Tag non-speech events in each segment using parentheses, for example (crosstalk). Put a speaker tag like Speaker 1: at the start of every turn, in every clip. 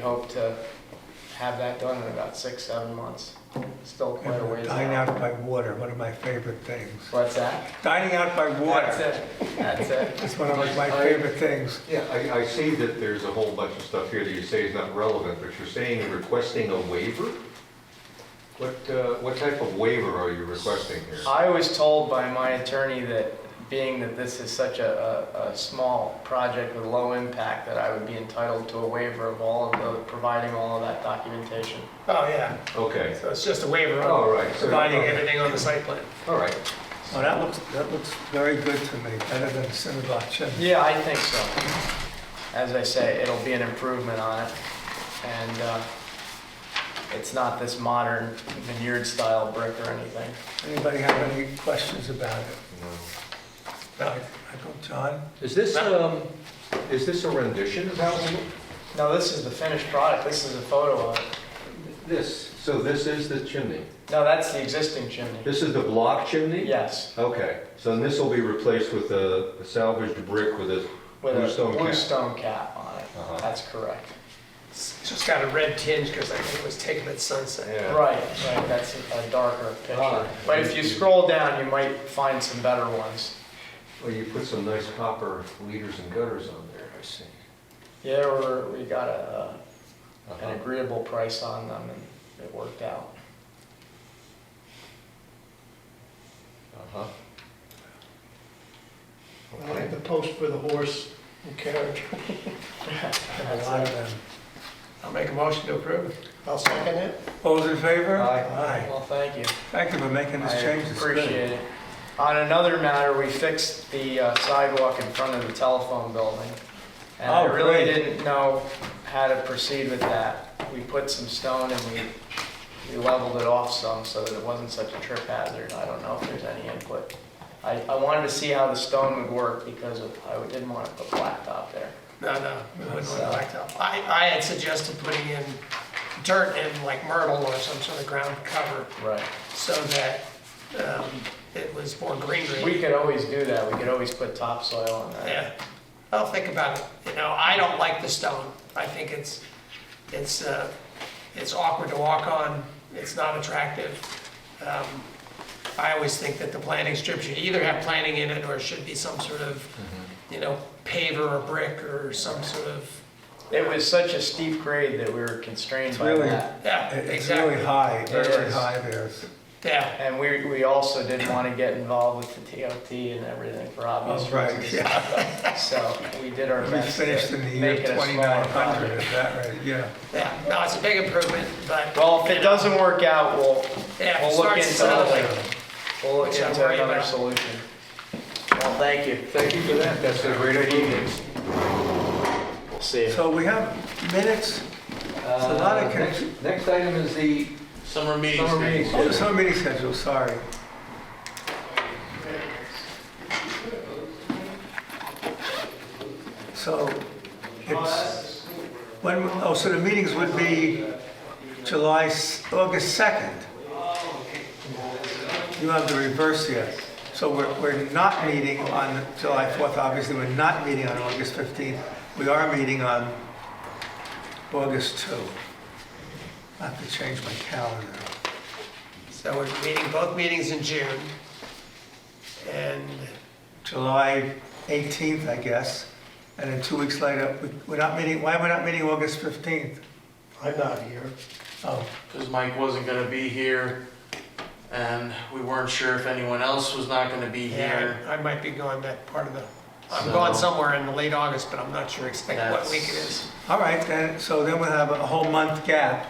Speaker 1: hope to have that done in about six, seven months. Still quite a ways
Speaker 2: Dine
Speaker 1: out.
Speaker 2: out by water, one of my favorite things.
Speaker 1: What's that?
Speaker 2: Dining out by
Speaker 1: That's
Speaker 2: water,
Speaker 1: it, that's it.
Speaker 2: it's one of my favorite things.
Speaker 3: Yeah, I, I see that there's a whole bunch of stuff here that you say is not relevant, but you're saying you're requesting a waiver? What, uh, what type of waiver are you requesting here?
Speaker 1: I was told by my attorney that, being that this is such a, a, a small project with low impact, that I would be entitled to a waiver of all of the, providing all of that documentation.
Speaker 4: Oh, yeah,
Speaker 3: Okay,
Speaker 4: so it's just a waiver
Speaker 1: Oh,
Speaker 3: all
Speaker 4: of
Speaker 3: right, so,
Speaker 4: providing everything on the site plan.
Speaker 3: all right.
Speaker 2: Oh, that looks, that looks very good to me, better than Cinnabon.
Speaker 1: Yeah, I think so. As I say, it'll be an improvement on it. And uh, it's not this modern vineyard-style brick or anything.
Speaker 2: Anybody have any questions about it? No, I I go, John?
Speaker 3: Is this, um, is this a rendition of how we
Speaker 1: No, this is the finished product. This is a photo of it.
Speaker 3: This, so this is the chimney?
Speaker 1: No, that's the existing chimney.
Speaker 3: This is the block chimney?
Speaker 1: Yes,
Speaker 3: Okay, so this will be replaced with a a salvaged brick with a,
Speaker 1: with a
Speaker 3: Bluestone cap.
Speaker 1: blue stone cap on it.
Speaker 3: Uh-huh.
Speaker 1: That's correct.
Speaker 4: It's just got a red tinge because I think it was taken at sunset.
Speaker 1: Right,
Speaker 3: yeah.
Speaker 1: right, that's a darker picture.
Speaker 3: Ah.
Speaker 1: But if you scroll down, you might find some better ones.
Speaker 3: Well, you put some nice copper leaders and gutters on there, I see.
Speaker 1: Yeah, we're- we got a, uh, an
Speaker 3: Uh-huh.
Speaker 1: agreeable price on them and it worked out.
Speaker 3: Uh-huh.
Speaker 5: I like the post for the horse and carriage.
Speaker 2: A lot of them.
Speaker 4: I'll make a motion to approve.
Speaker 5: I'll second it.
Speaker 2: All those in favor?
Speaker 3: Aye.
Speaker 1: Well, thank you.
Speaker 2: Aye. Thank you for making
Speaker 1: I
Speaker 2: this change. It's good.
Speaker 1: appreciate it. On another matter, we fixed the uh, sidewalk in front of the telephone building. And I
Speaker 2: Oh,
Speaker 1: really
Speaker 2: great.
Speaker 1: didn't know how to proceed with that. We put some stone and we, we leveled it off some so that it wasn't such a trip hazard. I don't know if there's any input. I, I wanted to see how the stone would work because of, I didn't want to put blacktop there.
Speaker 4: No, no, we wouldn't want blacktop. I, I had suggested putting in dirt and like myrtle or some sort of ground cover
Speaker 1: Right.
Speaker 4: so that um, it was more green green.
Speaker 1: We could always do that. We could always put topsoil on that.
Speaker 4: Yeah, I'll think about it. You know, I don't like the stone. I think it's, it's, uh, it's awkward to walk on. It's not attractive. Um, I always think that the planting strip should either have planting in it or it should be some sort of,
Speaker 1: Mm-hmm.
Speaker 4: you know, paver or brick or some sort of,
Speaker 1: It was such a steep grade that we were constrained
Speaker 2: It's
Speaker 1: by
Speaker 2: really-
Speaker 1: that.
Speaker 4: yeah,
Speaker 2: It- It's really
Speaker 4: exactly.
Speaker 2: high, very
Speaker 1: is.
Speaker 2: high there.
Speaker 4: Yeah,
Speaker 1: And we, we also didn't want to get involved with the TOT and everything for obvious
Speaker 2: Oh, right,
Speaker 1: reasons. (laughs)
Speaker 2: yeah.
Speaker 1: So we did our
Speaker 2: We
Speaker 1: best. to
Speaker 2: finished in the year
Speaker 1: make it a smaller
Speaker 2: 2900,
Speaker 1: project.
Speaker 2: is that right? Yeah.
Speaker 4: yeah, no, it's a big improvement, but.
Speaker 1: Well, if it doesn't work out, we'll,
Speaker 4: Yeah, if it
Speaker 1: we'll look
Speaker 4: starts
Speaker 1: into other,
Speaker 4: selling,
Speaker 1: we'll look
Speaker 4: Which I'm
Speaker 1: into
Speaker 4: worried
Speaker 1: another
Speaker 4: about.
Speaker 1: solution. Well, thank you.
Speaker 3: Thank you for that, that's a great idea.
Speaker 1: We'll see you.
Speaker 2: So we have minutes,
Speaker 3: It's
Speaker 2: a lot of
Speaker 3: Next
Speaker 2: confusion.
Speaker 3: next item is the
Speaker 6: Summer meetings.
Speaker 3: summer meeting
Speaker 2: oh,
Speaker 3: schedule.
Speaker 2: some meeting schedule, sorry. So it's, when, oh, so the meetings would be July, s- August 2nd. You have the reverse here. So we're, we're not meeting on July 4th, obviously, we're not meeting on August 15th. We are meeting on August 2. I have to change my calendar.
Speaker 4: So we're meeting, both meetings in June. And
Speaker 2: July 18th, I guess, and then two weeks later, we- we're not meeting, why are we not meeting August 15th?
Speaker 5: I'm not here.
Speaker 2: Oh,
Speaker 6: Because Mike wasn't gonna be here, and we weren't sure if anyone else was not gonna be
Speaker 4: Yeah,
Speaker 6: here.
Speaker 4: I I might be going that part of the, I'm
Speaker 6: So-
Speaker 4: going somewhere in late August, but I'm not sure exactly what
Speaker 6: That's-
Speaker 4: week it is.
Speaker 2: all right, then, so then we'll have a whole month gap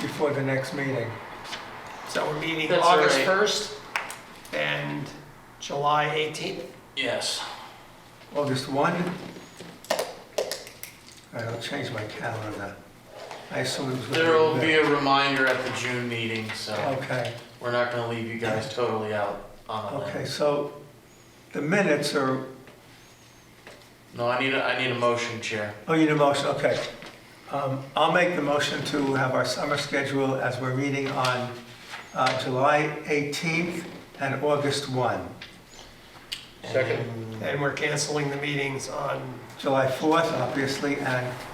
Speaker 2: before the next meeting.
Speaker 4: So we're meeting
Speaker 6: That's
Speaker 4: August
Speaker 6: all
Speaker 4: 1st and July 18th.
Speaker 6: Yes.
Speaker 2: August 1? All right, I'll change my calendar. I assume it was. gonna
Speaker 6: There'll
Speaker 2: the-
Speaker 6: be a reminder at the June meeting, so
Speaker 2: Okay,
Speaker 6: we're not gonna leave you guys totally out on
Speaker 2: okay,
Speaker 6: that.
Speaker 2: so the minutes are,
Speaker 6: No, I need, a I need a motion, Chair.
Speaker 2: oh, you need a motion, okay. Um, I'll make the motion to have our summer schedule as we're meeting on uh, July 18th and August 1.
Speaker 3: Second.
Speaker 4: And we're canceling the meetings on
Speaker 2: July 4th, obviously, and